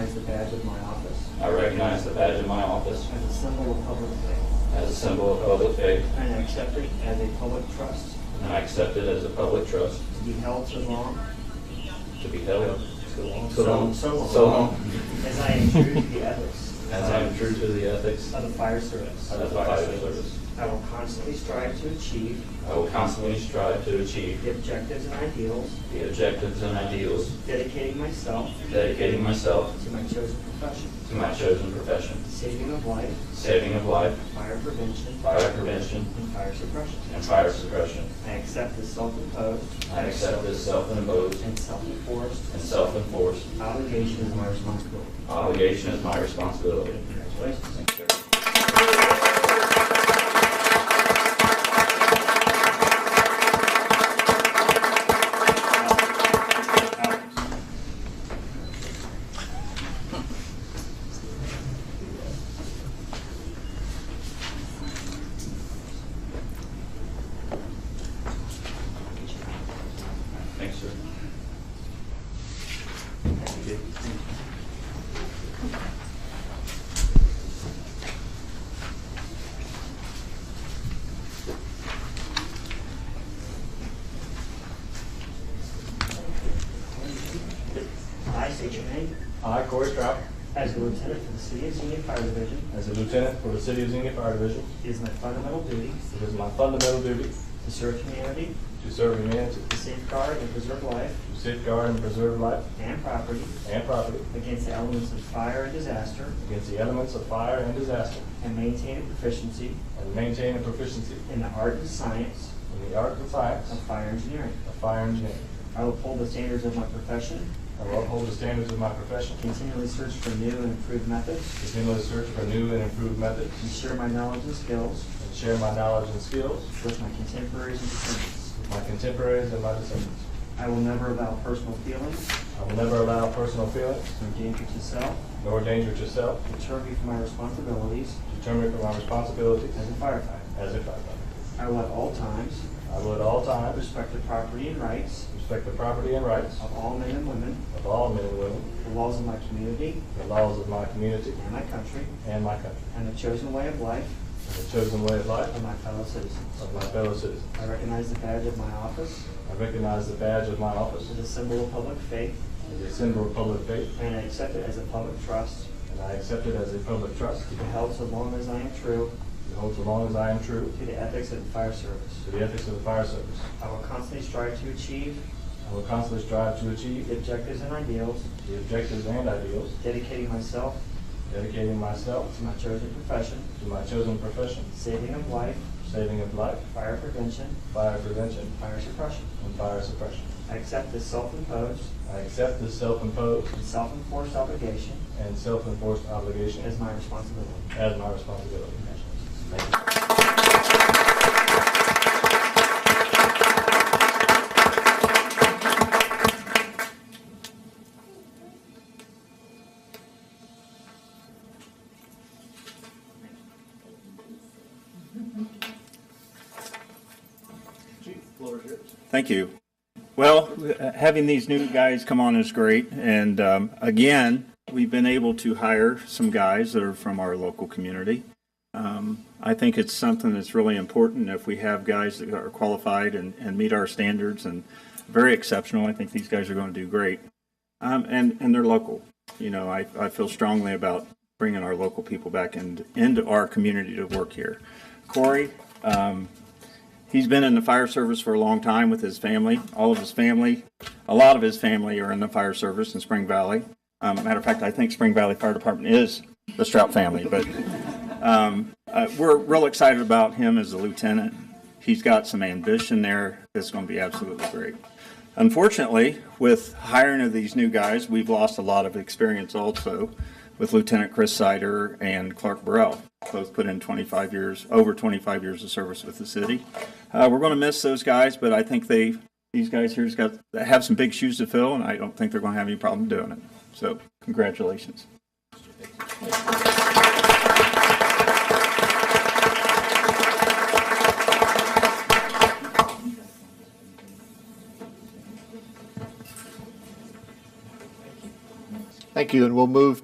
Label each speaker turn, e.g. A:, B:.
A: badge of my office
B: I recognize the badge of my office
A: as a symbol of public faith,
B: as a symbol of public faith,
A: and I accept it as a public trust
B: and I accept it as a public trust
A: to be held so long
B: to be held
A: So long. So long.
B: so long
A: as I am true to the ethics
B: as I am true to the ethics
A: of the fire service.
B: of the fire service.
A: I will constantly strive to achieve
B: I will constantly strive to achieve
A: the objectives and ideals,
B: the objectives and ideals,
A: dedicating myself
B: dedicating myself
A: to my chosen profession,
B: to my chosen profession,
A: saving of life,
B: saving of life,
A: fire prevention,
B: fire prevention,
A: and fire suppression.
B: and fire suppression.
A: I accept this self-imposed
B: I accept this self-imposed
A: and self-enforced
B: and self-enforced
A: obligation as my responsibility.
B: obligation as my responsibility.
A: Congratulations.
B: Thank you, sir. Thanks, sir.
A: I state your name
C: I, Corey Stroud,
A: as a lieutenant for the City of Xenia Fire Division.
C: as a lieutenant for the City of Xenia Fire Division,
A: It is my fundamental duty
C: it is my fundamental duty
A: to serve humanity,
C: to serve humanity,
A: to safeguard and preserve life
C: to safeguard and preserve life
A: and property
C: and property
A: against the elements of fire and disaster,
C: against the elements of fire and disaster,
A: and maintain a proficiency
C: and maintain a proficiency
A: in the art and science
C: in the art and science
A: of fire engineering.
C: of fire engineering.
A: I will uphold the standards of my profession,
C: I will uphold the standards of my profession,
A: continually search for new and improved methods,
C: continually search for new and improved methods,
A: and share my knowledge and skills
C: and share my knowledge and skills
A: with my contemporaries and descendants.
C: with my contemporaries and my descendants.
A: I will never allow personal feelings
C: I will never allow personal feelings
A: nor danger to self
C: nor danger to self
A: to deter me from my responsibilities
C: to deter me from my responsibilities
A: as a firefighter.
C: as a firefighter.
A: I will at all times
C: I will at all times
A: respect the property and rights
C: Respect the property and rights
A: of all men and women,
C: of all men and women,
A: the laws of my community
C: the laws of my community
A: and my country,
C: and my country,
A: and the chosen way of life
C: and the chosen way of life
A: of my fellow citizens.
C: of my fellow citizens.
A: I recognize the badge of my office
C: I recognize the badge of my office
A: as a symbol of public faith,
C: as a symbol of public faith,
A: and I accept it as a public trust
C: and I accept it as a public trust
A: to be held so long as I am true
C: to hold so long as I am true
A: to the ethics of the fire service.
C: to the ethics of the fire service.
A: I will constantly strive to achieve
C: I will constantly strive to
A: the
C: achieve
A: objectives and ideals,
C: the objectives and ideals,
A: dedicating myself
C: dedicating myself
A: to my chosen profession,
C: to my chosen profession,
A: saving of life,
C: saving of life,
A: fire prevention,
C: fire prevention,
A: fire suppression.
C: and fire suppression.
A: I accept this self-imposed
C: I accept this self-imposed
A: and self-enforced obligation
C: and self-enforced obligation
A: as my responsibility.
C: as my responsibility.
D: Thank you. Well, uh, having these new guys come on is great. And um, again, we've been able to hire some guys that are from our local community. Um, I think it's something that's really important if we have guys that are qualified and, and meet our standards and very exceptional. I think these guys are going to do great. Um, and, and they're local. You know, I, I feel strongly about bringing our local people back and into our community to work here. Corey, um, He's been in the fire service for a long time with his family. All of his family, a lot of his family are in the fire service in Spring Valley. Um, matter of fact, I think Spring Valley Fire Department is the Strout family, but um, uh, we're real excited about him as a lieutenant. He's got some ambition there that's going to be absolutely great. Unfortunately, with hiring of these new guys, we've lost a lot of experience also with Lieutenant Chris Sider and Clark Burrell. Both put in 25 years, over 25 years of service with the city. Uh, we're going to miss those guys, but I think they, these guys here's got, have some big shoes to fill, and I don't think they're going to have any problem doing it. So congratulations.
E: Thank you, and we'll move